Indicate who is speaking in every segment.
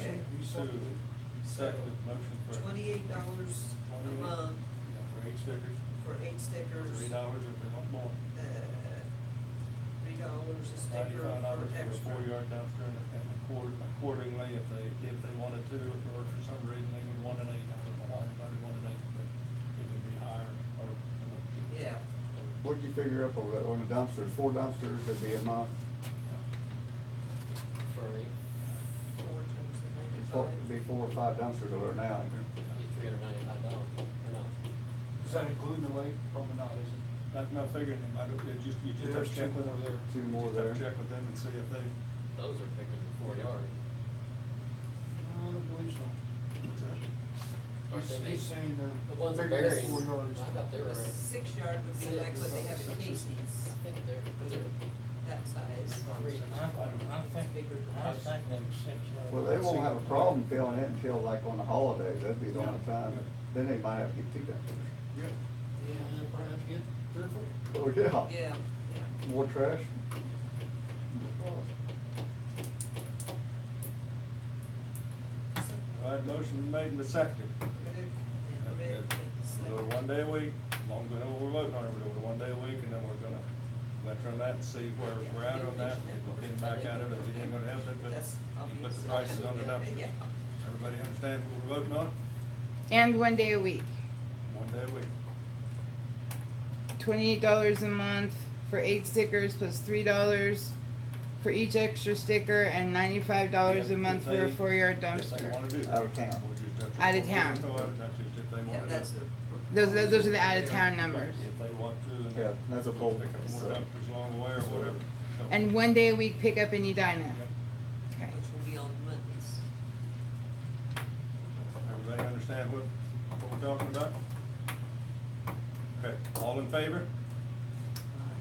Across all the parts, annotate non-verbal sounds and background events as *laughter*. Speaker 1: Sue, second motion for.
Speaker 2: Twenty-eight dollars a
Speaker 1: Twenty-eight.
Speaker 2: month
Speaker 1: Yeah, For eight stickers,
Speaker 2: for eight stickers.
Speaker 1: three dollars if they want more.
Speaker 2: uh, Three dollars a sticker
Speaker 1: Ninety-five dollars for
Speaker 2: for
Speaker 1: a
Speaker 2: extra.
Speaker 1: four-yard dumpster and and accord- accordingly, if they, if they wanted to, or for some reason they would want an eight, I don't know why anybody wanted an eight, but it would be higher or.
Speaker 2: Yeah,
Speaker 3: What'd you figure up on the, on the dumpsters, four dumpsters, it'd be a month,
Speaker 4: for eight,
Speaker 2: four times the
Speaker 3: four, it'd be
Speaker 2: ninety-five.
Speaker 3: four or five dumpsters over now.
Speaker 4: three hundred ninety-five dollars, or not?
Speaker 5: Does that include the lake? Probably not, is it?
Speaker 1: That's not figuring them, I don't, you just, you just have
Speaker 5: There's
Speaker 1: to
Speaker 5: two
Speaker 1: check with
Speaker 5: more
Speaker 1: them.
Speaker 5: there.
Speaker 3: Two
Speaker 1: You
Speaker 3: more
Speaker 1: just have to
Speaker 3: there.
Speaker 1: Check with them and see if they,
Speaker 4: Those are pickers in four yard.
Speaker 5: I don't believe so.
Speaker 4: Aren't they
Speaker 5: He's-
Speaker 4: big?
Speaker 5: He's saying they're.
Speaker 4: The ones that
Speaker 5: bigger than
Speaker 4: buries, I
Speaker 5: Four yards.
Speaker 4: thought they were.
Speaker 2: A six-yard would be like what they have at Casey's,
Speaker 4: I think they're, they're
Speaker 2: that size.
Speaker 4: three.
Speaker 6: I, I think, I think them six.
Speaker 3: Well, they won't have a problem filling it until like on the holidays, that'd be the only
Speaker 1: Yeah.
Speaker 3: time, then they might have to get two dumpsters.
Speaker 5: Yeah, yeah, probably have to get three or four.
Speaker 3: Oh, yeah.
Speaker 2: Yeah, yeah.
Speaker 3: More trash?
Speaker 1: all right, motion made and seconded.
Speaker 2: Red, yeah, red,
Speaker 1: We'll Do it
Speaker 2: like-
Speaker 1: one day a week, long as we're voting on it, we'll do it one day a week, and then we're gonna veteran that and see where we're at on that, we'll get back at it, if it ain't gonna happen, but
Speaker 2: That's
Speaker 1: you put
Speaker 2: obvious.
Speaker 1: the prices on it up.
Speaker 2: *laughs* Yeah.
Speaker 1: Everybody understand what we're voting on?
Speaker 7: And one day a week.
Speaker 1: One day a week.
Speaker 7: Twenty-eight dollars a month for eight stickers plus three dollars for each extra sticker and ninety-five dollars a
Speaker 1: If
Speaker 7: month for a
Speaker 1: they-
Speaker 7: four-yard
Speaker 1: If they
Speaker 7: dumpster.
Speaker 1: wanna do that.
Speaker 3: Out of town.
Speaker 1: We'll just have to-
Speaker 7: Out of town.
Speaker 1: We'll just have to- if they
Speaker 2: Yeah,
Speaker 1: wanna do
Speaker 2: that's
Speaker 1: it.
Speaker 2: the.
Speaker 7: Those, those are the out-of-town numbers.
Speaker 1: If they want to, and.
Speaker 3: Yeah, that's a poll.
Speaker 1: Pick up more dumpsters along the way or whatever. So-
Speaker 7: And one day a week pickup in Edina.
Speaker 1: Yep.
Speaker 7: Okay.
Speaker 2: Which will be on Mondays.
Speaker 1: Everybody understand what, what we're talking about? Okay, all in favor?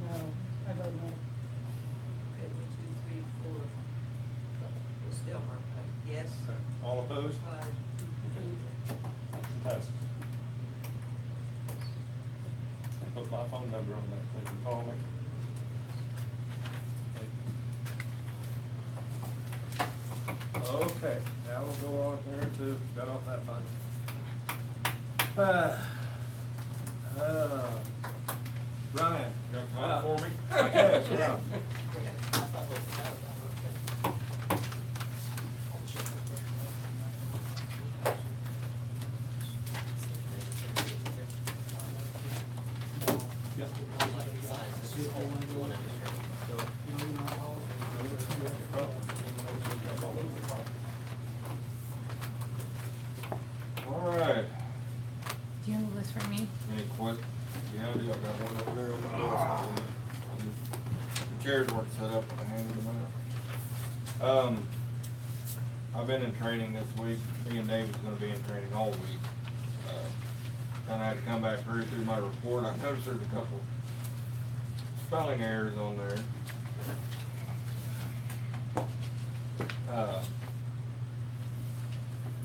Speaker 2: No, I don't know. Okay, one, two, three, four. Ms. Delmer, uh, yes?
Speaker 1: Okay, All opposed?
Speaker 2: Five.
Speaker 1: Motion passes. I Put my phone number on that, they can call me. Okay, now we'll go on here to, got off that fund. Uh, uh, Ryan. Got one for me? *laughs* Yes, yeah. Yep.
Speaker 8: All right,
Speaker 7: Do you have a list for me?
Speaker 8: any ques, yeah, I do, I got one over there on the desk. The chairs weren't set up, I handed them out. Um, I've been in training this week, me and David's gonna be in training all week. Uh, Kinda had to come back through, through my report, I noticed there's a couple spelling errors on there. Uh,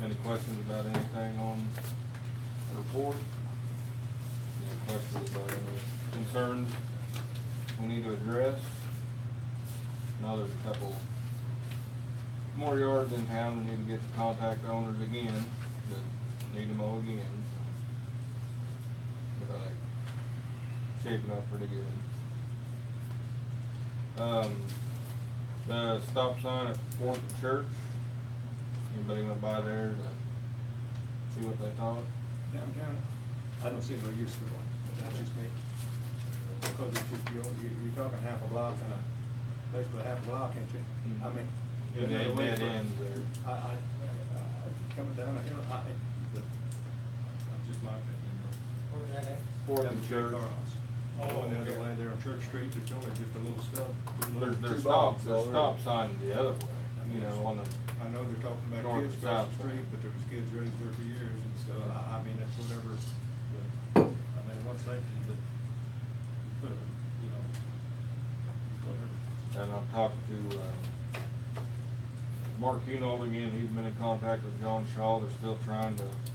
Speaker 8: Any questions about anything on the report? Any questions about any concerns we need to address? Now there's a couple more yards in town we need to get to contact owners again, that need to mow again. But I shaping up pretty good. Um, the stop sign at Fourth and Church, anybody went by there to see what they thought?
Speaker 1: Downtown, I don't see no use for one, but that's just me. Because it's just, you're, you're you're talking half a block and a, basically half a block, ain't you? I mean.
Speaker 8: Yeah,
Speaker 1: another
Speaker 8: dead-
Speaker 1: way
Speaker 8: dead
Speaker 1: for-
Speaker 8: ends there.
Speaker 1: I, I, I, I- coming down a hill, I, I- but, that's just my opinion.
Speaker 8: Fourth
Speaker 1: Down
Speaker 8: and
Speaker 1: to Jay
Speaker 8: Church.
Speaker 1: Carl's. Oh, and the other way there on Church Street, there's only just a little stop.
Speaker 8: There's,
Speaker 3: Two
Speaker 8: there's stop,
Speaker 3: blocks
Speaker 8: there's
Speaker 3: over.
Speaker 8: stop sign the other way, you know, on the,
Speaker 1: I know they're talking about
Speaker 8: North
Speaker 1: kids
Speaker 8: and
Speaker 1: across the
Speaker 8: south.
Speaker 1: street, but there was kids raised there for years, and so, I, I mean, that's whatever, but, I mean, what's that, but, but, you know, whatever.
Speaker 8: And I've talked to, uh, Mark Hunold again, he's been in contact with John Shaw, they're still trying to